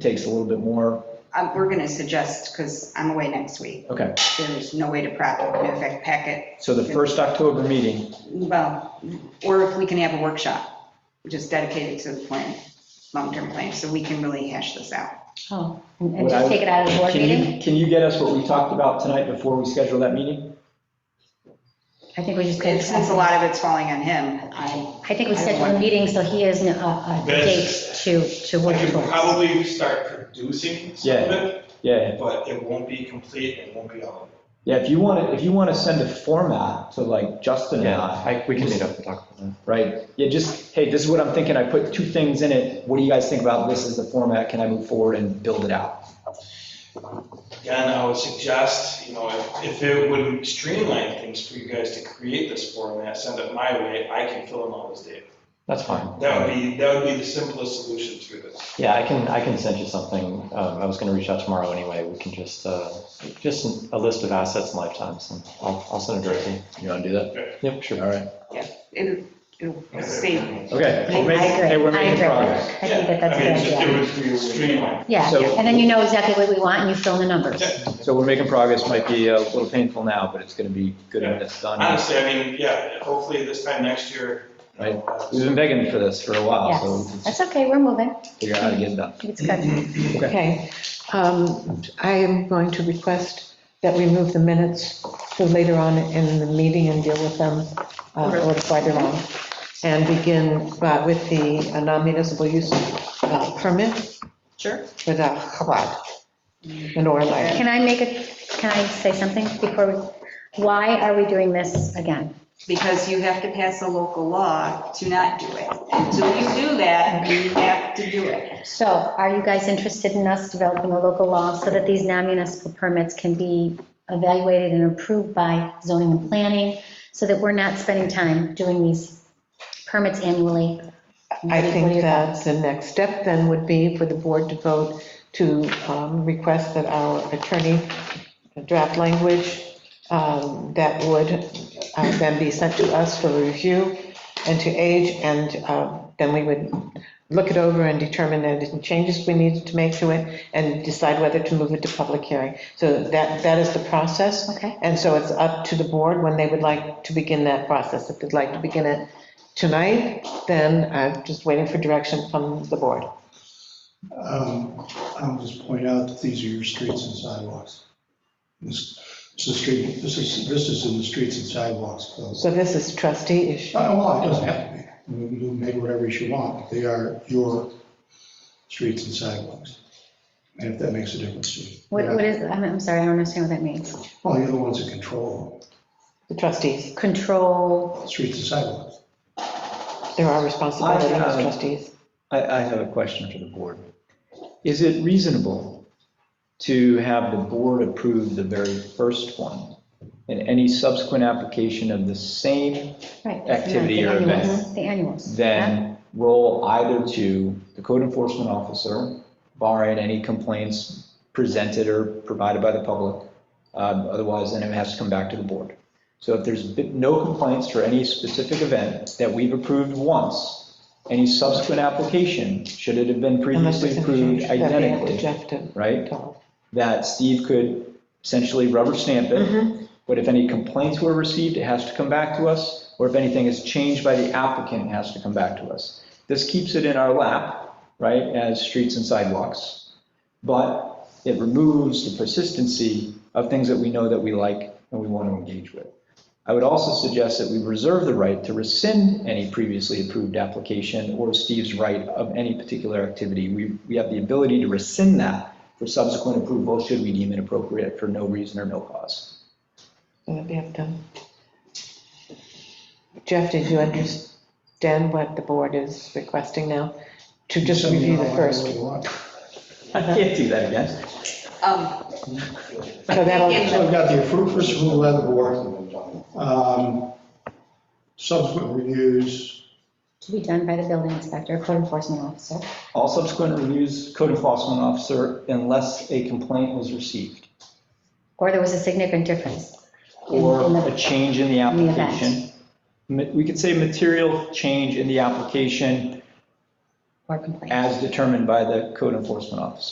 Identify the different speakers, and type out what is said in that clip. Speaker 1: takes a little bit more,
Speaker 2: Um, We're going to suggest, because I'm away next week,
Speaker 1: okay.
Speaker 2: there's no way to prep, in fact, pack it,
Speaker 1: So the first October meeting,
Speaker 2: well, or if we can have a workshop, just dedicated to the plan, long-term plan, so we can really hash this out.
Speaker 3: Oh, and and
Speaker 1: Would I-
Speaker 3: just take it out of the board
Speaker 1: can
Speaker 3: meeting?
Speaker 1: you, can you get us what we talked about tonight before we schedule that meeting?
Speaker 3: I think we just
Speaker 2: And
Speaker 3: did,
Speaker 2: Since a
Speaker 3: I
Speaker 2: lot of it's falling on him, I,
Speaker 3: think we scheduled a meeting, so he has a, a date
Speaker 4: That's-
Speaker 3: to, to
Speaker 4: I
Speaker 3: work
Speaker 4: can
Speaker 3: towards.
Speaker 4: probably start producing some of
Speaker 1: Yeah.
Speaker 4: it,
Speaker 1: Yeah,
Speaker 4: but it won't be complete, and it won't be all of it.
Speaker 1: yeah, if you want to, if you want to send a format to like Justin and
Speaker 5: Yeah,
Speaker 1: I,
Speaker 5: I- we can meet up and talk about that.
Speaker 1: right? Yeah, just, hey, this is what I'm thinking, I put two things in it, what do you guys think about this as the format, can I move forward and build it out?
Speaker 4: Again, I would suggest, you know, if- if it would streamline things for you guys to create this format, send it my way, I can fill in all this data.
Speaker 5: That's fine.
Speaker 4: That would be, that would be the simplest solution through this.
Speaker 5: Yeah, I can, I can send you something. Um, I was gonna reach out tomorrow anyway. We can just, uh, just a list of assets and lifetimes, and I'll, I'll send it directly.
Speaker 1: You want to do that?
Speaker 5: Yep, sure.
Speaker 1: All right.
Speaker 2: it'll, it'll save
Speaker 1: Okay.
Speaker 3: I
Speaker 1: we're
Speaker 3: I agree,
Speaker 1: making- hey, we're
Speaker 3: I
Speaker 1: making
Speaker 3: agree.
Speaker 1: progress.
Speaker 3: I think that that's a
Speaker 4: Yeah, I mean,
Speaker 3: good
Speaker 4: just
Speaker 3: idea.
Speaker 4: it would be streamlined.
Speaker 3: Yeah,
Speaker 1: So-
Speaker 3: and then you know exactly what we want, and you fill in the numbers.
Speaker 4: Yeah.
Speaker 1: So we're making progress, might be a little painful now, but it's going to be good when it's done.
Speaker 4: Honestly, I mean, yeah, hopefully this time next year. you know, uh,
Speaker 1: We've been begging for this for a while, so we
Speaker 3: Yes,
Speaker 1: can just
Speaker 3: that's okay, we're moving,
Speaker 1: figure out how to get it done.
Speaker 3: it's good.
Speaker 6: Okay, um, I am going to request that we move the minutes to later on in the meeting and deal with them uh, a little farther on. And begin uh, with the non-municipal use uh, permit
Speaker 2: Sure.
Speaker 6: for the Chabad in Orland.
Speaker 3: Can I make a, can I say something before, we? why are we doing this again?
Speaker 2: Because you have to pass a local law to not do it. Until you do that, you have to do it.
Speaker 3: So are you guys interested in us developing a local law so that these non-municipal permits can be evaluated and approved by zoning and planning? So that we're not spending time doing these permits annually?
Speaker 6: I think that the next step then would be for the board to vote to um, request that our attorney draft language um, that would uh, then be sent to us for review and to age, and uh, then we would look it over and determine any changes we needed to make to it, and decide whether to move it to public hearing. So that, that is the process.
Speaker 3: Okay.
Speaker 6: And so it's up to the board when they would like to begin that process. If they'd like to begin it tonight, then I'm just waiting for direction from the board.
Speaker 7: Um, I'll just point out that these are your streets and sidewalks. This, this is street, this is, this is in the streets and sidewalks clause.
Speaker 6: So this is trustee issue.
Speaker 7: Oh, well, it doesn't have to be. I mean, You can make whatever you want, they are your streets and sidewalks. And if that makes a difference to you.
Speaker 3: What what is, I'm I'm sorry, I don't understand what that means.
Speaker 7: Well, you're the ones that control
Speaker 6: The trustees,
Speaker 3: Control,
Speaker 7: streets and sidewalks.
Speaker 6: there are responsibilities
Speaker 1: I,
Speaker 6: as
Speaker 1: uh,
Speaker 6: trustees.
Speaker 1: I, I have a question for the board. Is it reasonable to have the board approve the very first one and any subsequent application of the same
Speaker 3: right.
Speaker 1: Activity or
Speaker 3: The annuals,
Speaker 1: event.
Speaker 3: The annuals. yeah?
Speaker 1: then roll either to the code enforcement officer, barring any complaints presented or provided by the public. Um, Otherwise, then it has to come back to the board. So if there's been no complaints for any specific event that we've approved once, any subsequent application, should it have been
Speaker 6: Unless
Speaker 1: previously
Speaker 6: there's a change,
Speaker 1: approved
Speaker 6: that'd be up to
Speaker 1: identically,
Speaker 6: Jeff to
Speaker 1: right?
Speaker 6: call.
Speaker 1: That Steve could essentially rubber stamp it but if any complaints were received, it has to come back to us, or if anything is changed by the applicant, it has to come back to us. This keeps it in our lap, right, as streets and sidewalks, but it removes the persistency of things that we know that we like and we want to engage with. I would also suggest that we reserve the right to rescind any previously approved application or Steve's right of any particular activity. We, we have the ability to rescind that for subsequent approval should we deem it appropriate for no reason or no cause.
Speaker 6: That'd be up to. Jeff, did you understand what the board is requesting now? To just
Speaker 7: Send me
Speaker 6: review
Speaker 7: all
Speaker 6: the
Speaker 7: I
Speaker 6: first.
Speaker 7: really want.
Speaker 1: I can't do that again.
Speaker 2: Um,
Speaker 6: So that'll,
Speaker 7: So I've got the approved first approval by the board. Um, Subsequent reviews,
Speaker 3: To be done by the building inspector, code enforcement officer.
Speaker 1: All subsequent reviews, code enforcement officer, unless a complaint was received
Speaker 3: Or there was a significant difference. in-
Speaker 1: or
Speaker 3: in the-
Speaker 1: a change in the
Speaker 3: the event.
Speaker 1: application. Ma- We could say material change in the application
Speaker 3: Or complaint.
Speaker 1: as determined by the code enforcement officer.